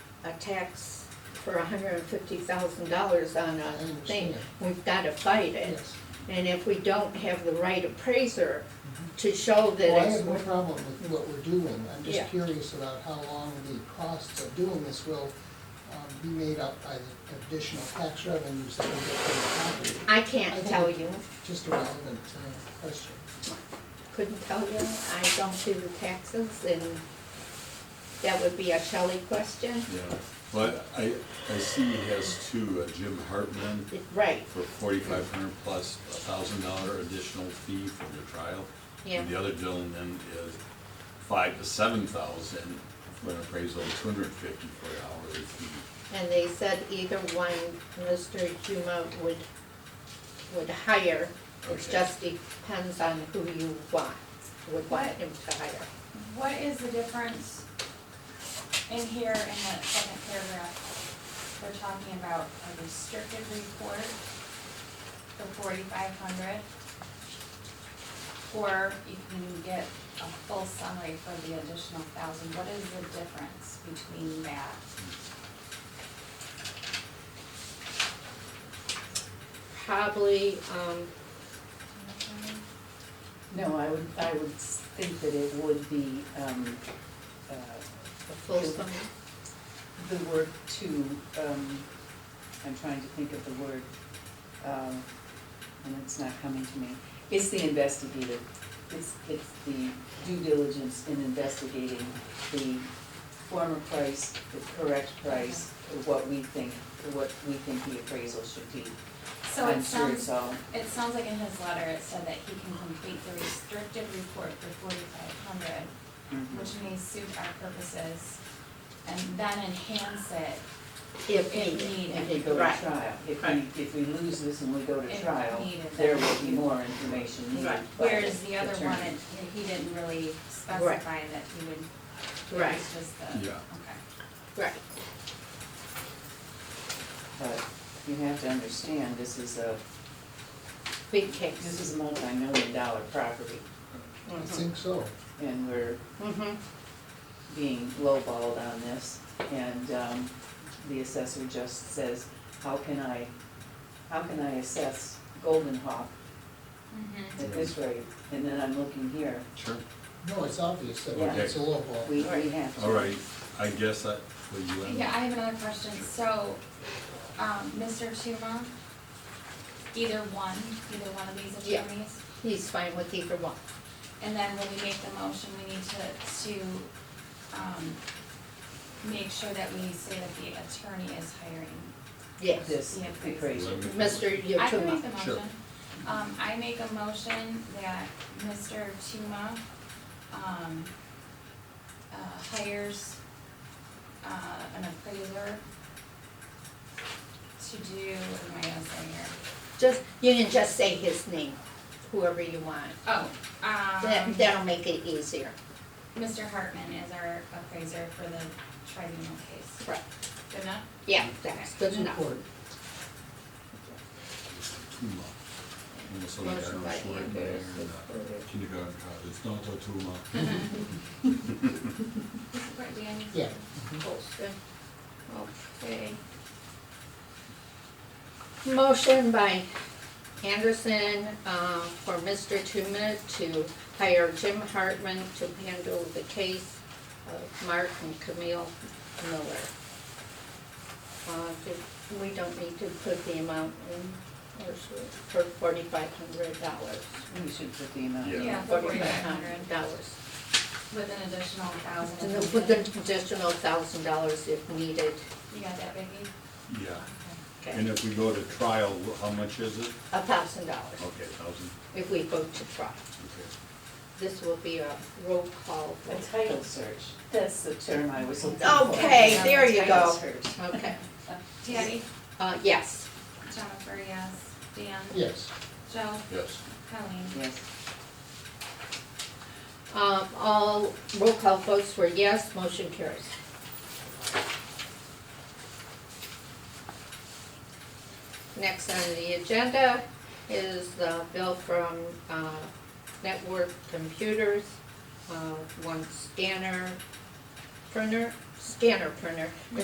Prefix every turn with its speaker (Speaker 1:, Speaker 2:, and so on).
Speaker 1: a tax for hundred and fifty thousand dollars on a thing,
Speaker 2: understand.
Speaker 1: we've gotta fight it.
Speaker 2: Yes.
Speaker 1: And if we don't have the right appraiser to show
Speaker 2: Mm-hmm. Well, I
Speaker 1: that it's
Speaker 2: have no
Speaker 1: worth,
Speaker 2: problem with what we're doing, I'm
Speaker 1: Yeah.
Speaker 2: just curious about how long the costs of doing this will um, be made up by the additional tax revenues that we get from the property.
Speaker 1: I
Speaker 2: I
Speaker 1: can't
Speaker 2: think
Speaker 1: tell
Speaker 2: it-
Speaker 1: you,
Speaker 2: Just a relevant uh, question.
Speaker 1: couldn't tell you, I don't do the taxes and that would be a Shelley question.
Speaker 3: Yeah, well, I, I see he has two, uh, Jim Hartman
Speaker 1: Right,
Speaker 3: for forty-five hundred plus a thousand dollar additional fee for the trial.
Speaker 1: Yeah.
Speaker 3: And the other gentleman is five to seven thousand for an appraisal, two hundred and fifty for an hourly fee.
Speaker 1: and they said either one, Mr. Huma would, would hire. It
Speaker 3: Okay.
Speaker 1: just depends on who you want, would want
Speaker 4: What?
Speaker 1: him to hire.
Speaker 4: What is the difference in here in that second paragraph? We're talking about a restricted report for forty-five hundred. Or you can get a full summary for the additional thousand. What is the difference between that?
Speaker 1: Probably, um,
Speaker 5: No, I would, I would s- think that it would be, um, uh,
Speaker 1: a full sum,
Speaker 5: the word to, um, I'm trying to think of the word, um, and it's not coming to me. It's the investigative, it's, it's the due diligence in investigating the former price, the correct price, what we think, what we think the appraisal should be.
Speaker 4: So it
Speaker 5: I'm sure it's
Speaker 4: sounds,
Speaker 5: all,
Speaker 4: it sounds like in his letter, it said that he can complete the restricted report for forty-five hundred.
Speaker 5: mhm.
Speaker 4: which may suit our purposes, and then enhance it.
Speaker 1: if
Speaker 4: If
Speaker 1: needed.
Speaker 4: needed.
Speaker 5: If we go to
Speaker 1: Right.
Speaker 5: trial, if we, if we lose this and we go to
Speaker 4: If
Speaker 5: trial,
Speaker 4: needed,
Speaker 5: there
Speaker 4: then
Speaker 5: will be
Speaker 4: you-
Speaker 5: more information needed by the
Speaker 1: Right.
Speaker 5: attorney.
Speaker 4: Whereas the other one, it- he didn't really
Speaker 1: Right.
Speaker 4: specify that he would, it
Speaker 1: Right.
Speaker 4: was just the, okay.
Speaker 3: Yeah.
Speaker 1: Right,
Speaker 5: But you have to understand, this is a,
Speaker 1: big
Speaker 5: this
Speaker 1: case.
Speaker 5: is a multi-million dollar property,
Speaker 2: I think so.
Speaker 5: and we're
Speaker 1: Mm-hmm,
Speaker 5: being lowballed on this. And, um, the assessor just says, how can I, how can I assess Golden Hawk
Speaker 1: Mm-hmm.
Speaker 4: Mhm.
Speaker 5: at this rate? And then I'm looking here,
Speaker 3: Sure.
Speaker 2: No, it's obvious that
Speaker 5: Yeah.
Speaker 2: it's a low ball.
Speaker 5: we, we have to.
Speaker 3: All right, I guess I, will you end?
Speaker 4: Yeah, I have another question, so, um, Mr. Tuma, either one, either one of these
Speaker 1: Yeah.
Speaker 4: attorneys,
Speaker 1: he's fine with either one.
Speaker 4: and then when we make the motion, we need to, to, um, make sure that we say that the attorney is hiring
Speaker 1: Yes,
Speaker 5: This,
Speaker 4: Yeah, please.
Speaker 5: appraisal.
Speaker 1: Mr.
Speaker 4: I can make
Speaker 1: Yatuma.
Speaker 4: the
Speaker 3: Sure.
Speaker 4: motion. Um, I make a motion that Mr. Tuma, um, uh, hires, uh, an appraiser to do, what am I gonna say here?
Speaker 1: Just, you can just say his name, whoever you want.
Speaker 4: Oh,
Speaker 1: That,
Speaker 4: um,
Speaker 1: that'll make it easier.
Speaker 4: Mr. Hartman is our appraiser for the tribunal case.
Speaker 1: Right.
Speaker 4: Good enough?
Speaker 1: Yeah, that's good enough.
Speaker 2: Support.
Speaker 3: Tuma. Almost like I
Speaker 1: Motion by
Speaker 3: was working there
Speaker 1: Anders,
Speaker 3: in
Speaker 1: supported.
Speaker 3: the kindergarten, uh, it's not a Tuma.
Speaker 4: Support Dan?
Speaker 2: Yeah.
Speaker 1: Motion. Okay. Motion by Anderson, uh, for Mr. Tuma to hire Jim Hartman to handle the case of Mark and Camille Miller. Uh, did- we don't need to put the amount in, or should, for forty-five hundred dollars.
Speaker 5: We should put the amount.
Speaker 3: Yeah.
Speaker 4: Yeah, for forty-five hundred,
Speaker 1: Dollars.
Speaker 4: with an additional thousand.
Speaker 1: And then with an additional thousand dollars if needed.
Speaker 4: You got that, Vicki?
Speaker 3: Yeah,
Speaker 4: Okay.
Speaker 3: and if we go to trial, how much is it?
Speaker 1: A thousand dollars
Speaker 3: Okay, thousand,
Speaker 1: if we go to trial.
Speaker 3: okay.
Speaker 1: This will be a roll call
Speaker 5: A
Speaker 1: vote.
Speaker 5: title search, that's the term I was looking for.
Speaker 1: Okay, there you
Speaker 5: Title
Speaker 1: go.
Speaker 5: search.
Speaker 1: Okay,
Speaker 4: Debbie?
Speaker 1: uh, yes.
Speaker 4: Jennifer, yes. Dan?
Speaker 2: Yes,
Speaker 4: Joe?
Speaker 3: Yes.
Speaker 4: Colleen?
Speaker 5: Yes.
Speaker 1: Um, all roll call votes were yes, motion carries. Next on the agenda is the bill from, uh, Network Computers, uh, one scanner printer, scanner printer.